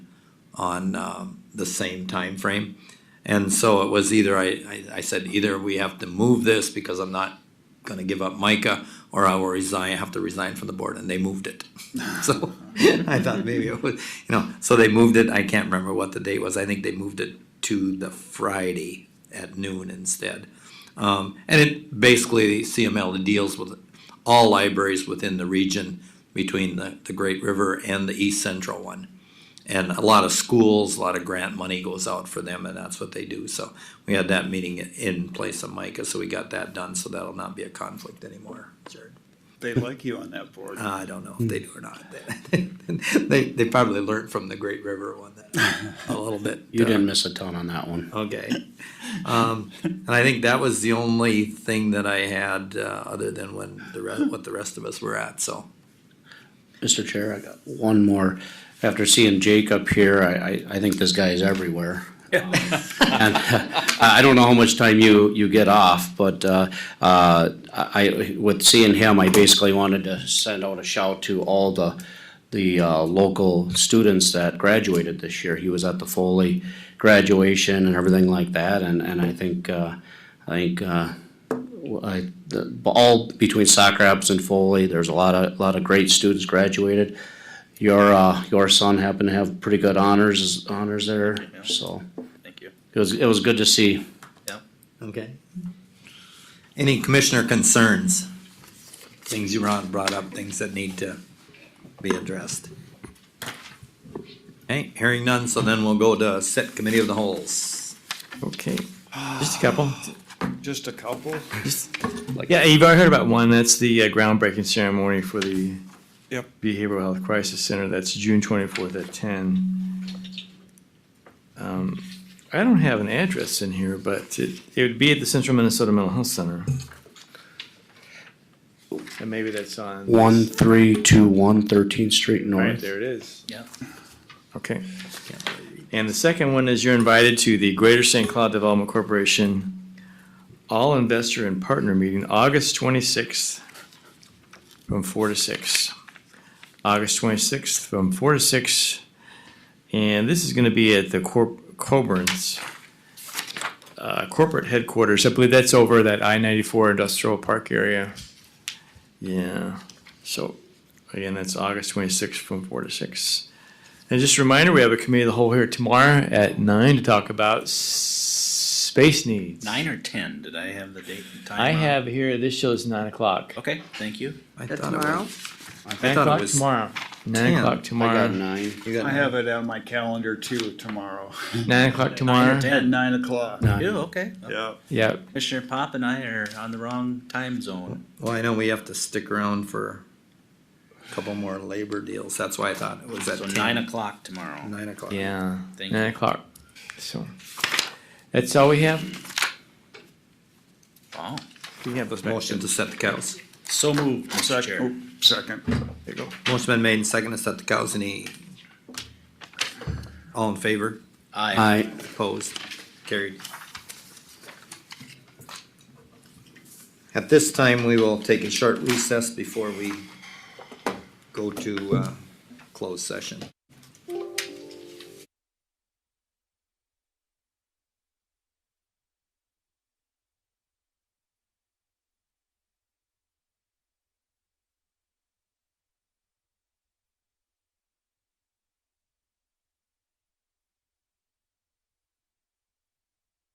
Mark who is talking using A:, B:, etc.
A: on um, the same time frame, And so it was either, I, I, I said, either we have to move this because I'm not gonna give up Micah, or I will resign, have to resign from the board, and they moved it. So I thought maybe it was, you know, so they moved it, I can't remember what the date was, I think they moved it to the Friday at noon instead. Um, and it basically, CML deals with all libraries within the region between the, the Great River and the East Central one. And a lot of schools, a lot of grant money goes out for them and that's what they do. So we had that meeting in place of Micah, so we got that done, so that'll not be a conflict anymore, Jared. Uh,
B: They like you on that
C: Uh,
B: board.
A: I don't know if they do or not. They, they probably learned from the Great River one that a little bit.
D: You
A: uh,
D: didn't miss a ton on that one.
A: Okay. Um, and I think that was the only thing that I had, uh, other than when the re- what the rest of us were at, so.
D: Mr. Chair, I got one more. After seeing Jake up here, I, I, I think this guy is everywhere. And uh, I I don't know how much time you, you get off, but, uh, uh, I, I- with seeing him, I basically wanted to send out a shout to all the, the, uh, local students that graduated this year. He was at the Foley graduation and everything like that, and, and I think, uh, I think, uh, I, the, all between Soccer Apps and Foley, there's a lot of, a lot of great students graduated. Your, uh, your son happened to have pretty good honors, honors there, so
B: Thank you.
D: it was, it was good to see.
A: Okay. Any commissioner concerns? Things you brought brought up, things that need to be addressed. Okay, hearing none, so then we'll go to set committee of the holes.
E: Okay, just a couple.
B: Just a couple?
E: Yeah, you've already heard about one. That's the uh, groundbreaking ceremony for the
B: Yep.
E: Behavioral Health Crisis Center. That's June twenty-fourth at ten. Um, I don't have an address in here, but it, it would be at the Central Minnesota Mental Health Center. And maybe that's on.
D: One, three, two, one, Thirteenth Street
E: Right,
D: North.
E: there it is.
B: Yeah.
E: Okay. And the second one is you're invited to the Greater St. Cloud Development Corporation All Investor and Partner Meeting, August twenty-sixth, from four to six. August twenty-sixth, from four to six. And this is gonna be at the Corp- Coburn's uh, corporate headquarters. I believe that's over that I ninety-four industrial park area. Yeah, so Again, that's August twenty-sixth from four to six. And just a reminder, we have a committee of the whole here tomorrow at nine to talk about s- space needs.
C: Nine or ten? Did I have the date and time?
E: I
C: wrong?
E: have here, this show is nine o'clock.
C: Okay, thank you.
A: I
F: That
A: thought it
F: tomorrow?
A: was-
E: Nine
A: thought it
E: o'clock
A: was
E: tomorrow.
A: 10.
E: Nine o'clock
D: I got
E: tomorrow.
D: nine.
A: you got-
B: I have it on my calendar too tomorrow
E: Nine o'clock tomorrow.
C: ten.
B: at nine o'clock.
D: Nine.
C: You okay?
B: Yeah.
E: Yep.
C: Commissioner Pop and I are on the wrong time zone.
A: Well, I know we have to stick around for a couple more labor deals, that's why I thought it was at
C: So nine
A: ten,
C: o'clock tomorrow.
A: nine o'clock.
E: Yeah.
C: Thank
E: Nine
C: you.
E: o'clock. So that's all we have.
C: Wow.
E: We can have those back.
A: Motion to set the cows.
C: So moved, Mr.
B: Second,
C: Chair.
B: oop, second.
E: There you go.
A: Motion been made and seconded to set the cows, any? All in favor?
C: Aye.
D: I,
A: Opposed, carried. At this time, we will take a short recess before we go to, uh, closed session.